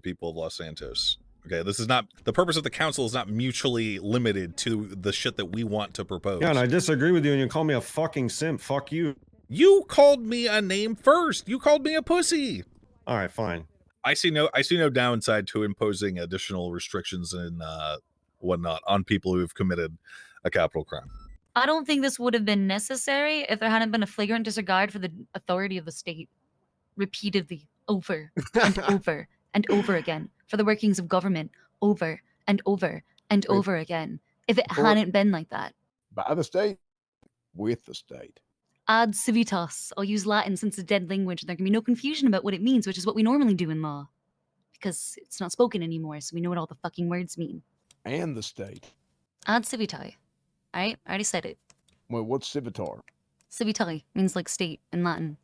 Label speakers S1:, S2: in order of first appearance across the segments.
S1: people of Los Santos. Okay, this is not the purpose of the council is not mutually limited to the shit that we want to propose.
S2: Yeah, and I disagree with you, and you call me a fucking simp. Fuck you.
S1: you called me a name first. You called me a pussy.
S2: All right, fine.
S1: I see no I see no downside to imposing additional restrictions and uh, whatnot on people who have committed a capital crime.
S3: I don't think this would have been necessary if there hadn't been a flagrant disregard for the authority of the state repeatedly, over and over and over again, for the workings of government, over and over and
S4: Wait.
S3: over again. If it
S4: Or-
S3: hadn't been like that,
S4: by the state, with the state.
S3: ad civitas, I'll use Latin since it's a dead language and there can be no confusion about what it means, which is what we normally do in law. Because it's not spoken anymore, so we know what all the fucking words mean.
S4: and the state.
S3: Ad civitae. Alright? I already said it.
S4: Well, what's civitar?
S3: Civitae means like state in Latin.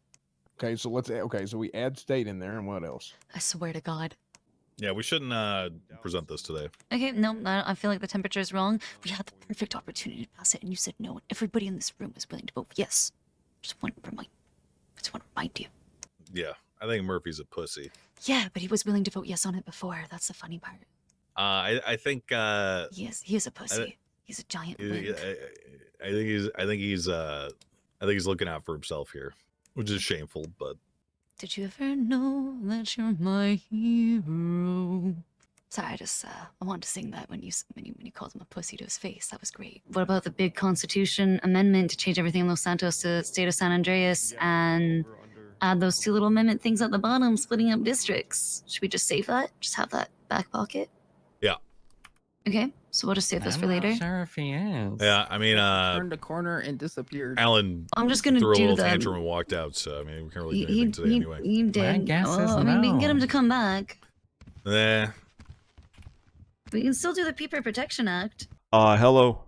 S4: Okay, so let's add, okay, so we add state in there, and what else?
S3: I swear to God.
S1: Yeah, we shouldn't uh, present this today.
S3: Okay, no, I, I feel like the temperature is wrong. We had the perfect opportunity to pass it, and you said no. And everybody in this room was willing to vote yes. Just want to remind, just want to remind you.
S1: Yeah, I think Murphy's a pussy.
S3: Yeah, but he was willing to vote yes on it before. That's the funny part.
S1: Uh, I I think uh,
S3: He is, he is a pussy. He's a giant.
S1: I,
S3: wimp.
S1: I I think he's I think he's uh, I think he's looking out for himself here, which is shameful, but
S3: Did you ever know that you're my hero? Sorry, I just uh, I wanted to sing that when you s- when you when you called him a pussy to his face. That was great. What about the big Constitution amendment to change everything in Los Santos to the state of San Andreas and add those two little amendment things at the bottom, splitting up districts? Should we just save that? Just have that back pocket?
S1: Yeah.
S3: Okay, so we'll just save this for later.
S5: sure if he is.
S1: yeah, I mean, uh,
S5: Turned a corner and disappeared.
S1: Alan
S3: I'm just gonna
S1: threw a
S3: do
S1: little
S3: the. um,
S1: tantrum and walked out, so I mean, we can't really
S3: He,
S1: do anything
S3: he,
S1: today
S3: he,
S1: anyway.
S3: he did. Oh,
S5: guess is
S3: I mean, we can get him
S5: no.
S3: to come back.
S1: Nah.
S3: We can still do the Peeper Protection Act.
S6: Uh, hello.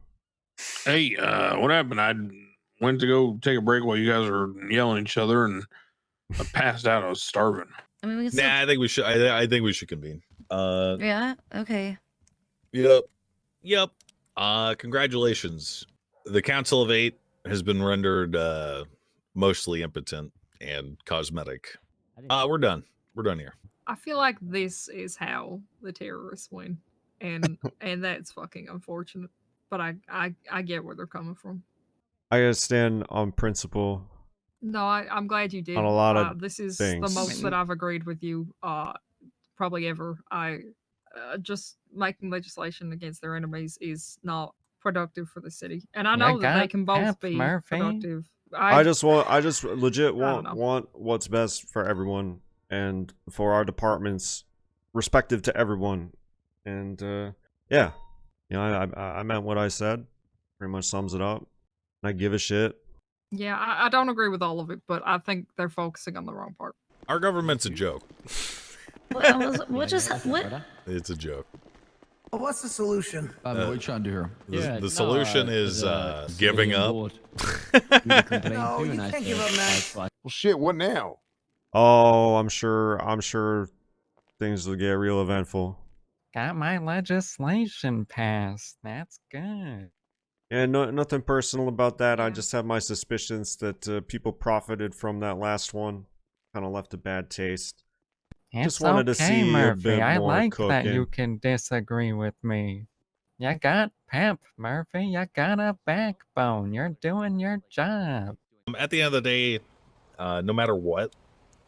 S7: Hey, uh, what happened? I went to go take a break while you guys were yelling at each other, and I passed out. I was starving.
S3: I mean, we can still.
S1: Nah, I think we should. I, I think we should convene. Uh,
S3: Yeah. Okay.
S1: yep, yep. Uh, congratulations. The Council of Eight has been rendered uh, mostly impotent and cosmetic. Uh, we're done. We're done here.
S8: I feel like this is how the terrorists win, and and that's fucking unfortunate. But I I I get where they're coming from.
S6: I gotta stand on principle.
S8: No, I, I'm glad you did.
S6: a lot of
S8: uh, this is
S6: things.
S8: the most that I've agreed with you, uh, probably ever. I uh, just making legislation against their enemies is not productive for the city, and I
S5: My
S8: know that they
S5: God,
S8: can both
S5: Pep
S8: be
S5: Murphy.
S8: productive.
S6: I, just want, I just legit
S8: don't
S6: want
S8: know.
S6: want what's best for everyone and for our departments, respective to everyone. And uh, yeah, you know, I, I I meant what I said. Pretty much sums it up. I give a shit.
S8: yeah, I, I don't agree with all of it, but I think they're focusing on the wrong part.
S1: Our government's a joke.
S3: What, I was- what just hap- what?
S1: It's a joke.
S9: What's the solution?
S10: Um,
S1: Uh,
S10: what are you trying to do here?
S1: The, the solution is uh, giving up.
S9: No, Oh, you can't give up, Max.
S4: Well, shit, what now?
S6: Oh, I'm sure. I'm sure things will get real eventful.
S5: Got my legislation passed. That's good.
S6: Yeah, no, nothing personal about that. I
S8: Yeah.
S6: just have my suspicions that uh, people profited from that last one. Kind of left a bad taste. Just
S5: It's
S6: wanted to
S5: okay,
S6: see a
S5: Murphy.
S6: bit
S5: I
S6: more
S5: like that you
S6: cooking.
S5: can disagree with me. You got pep, Murphy. You got a backbone. You're doing your job.
S1: Um, at the end of the day, uh, no matter what,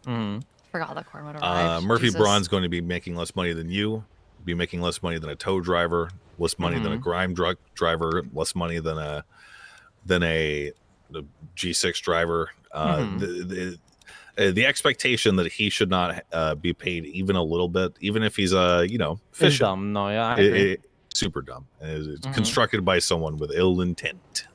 S5: Mm.
S3: Forgot the corn would
S1: uh,
S3: arrive.
S1: Murphy
S3: Jesus.
S1: Braun's going to be making less money than you, be making less money than a tow driver, less money than a
S5: Mhm.
S1: grime drug driver, less money than a than a a G6 driver. Uh,
S5: Mhm.
S1: the, the, uh, the expectation that he should not uh, be paid even a little bit, even if he's uh, you know
S5: It's
S1: fishing,
S5: dumb. No, yeah. I
S1: It-
S5: agree.
S1: it- super dumb. And It's it's
S5: Mhm.
S1: constructed by someone with ill intent.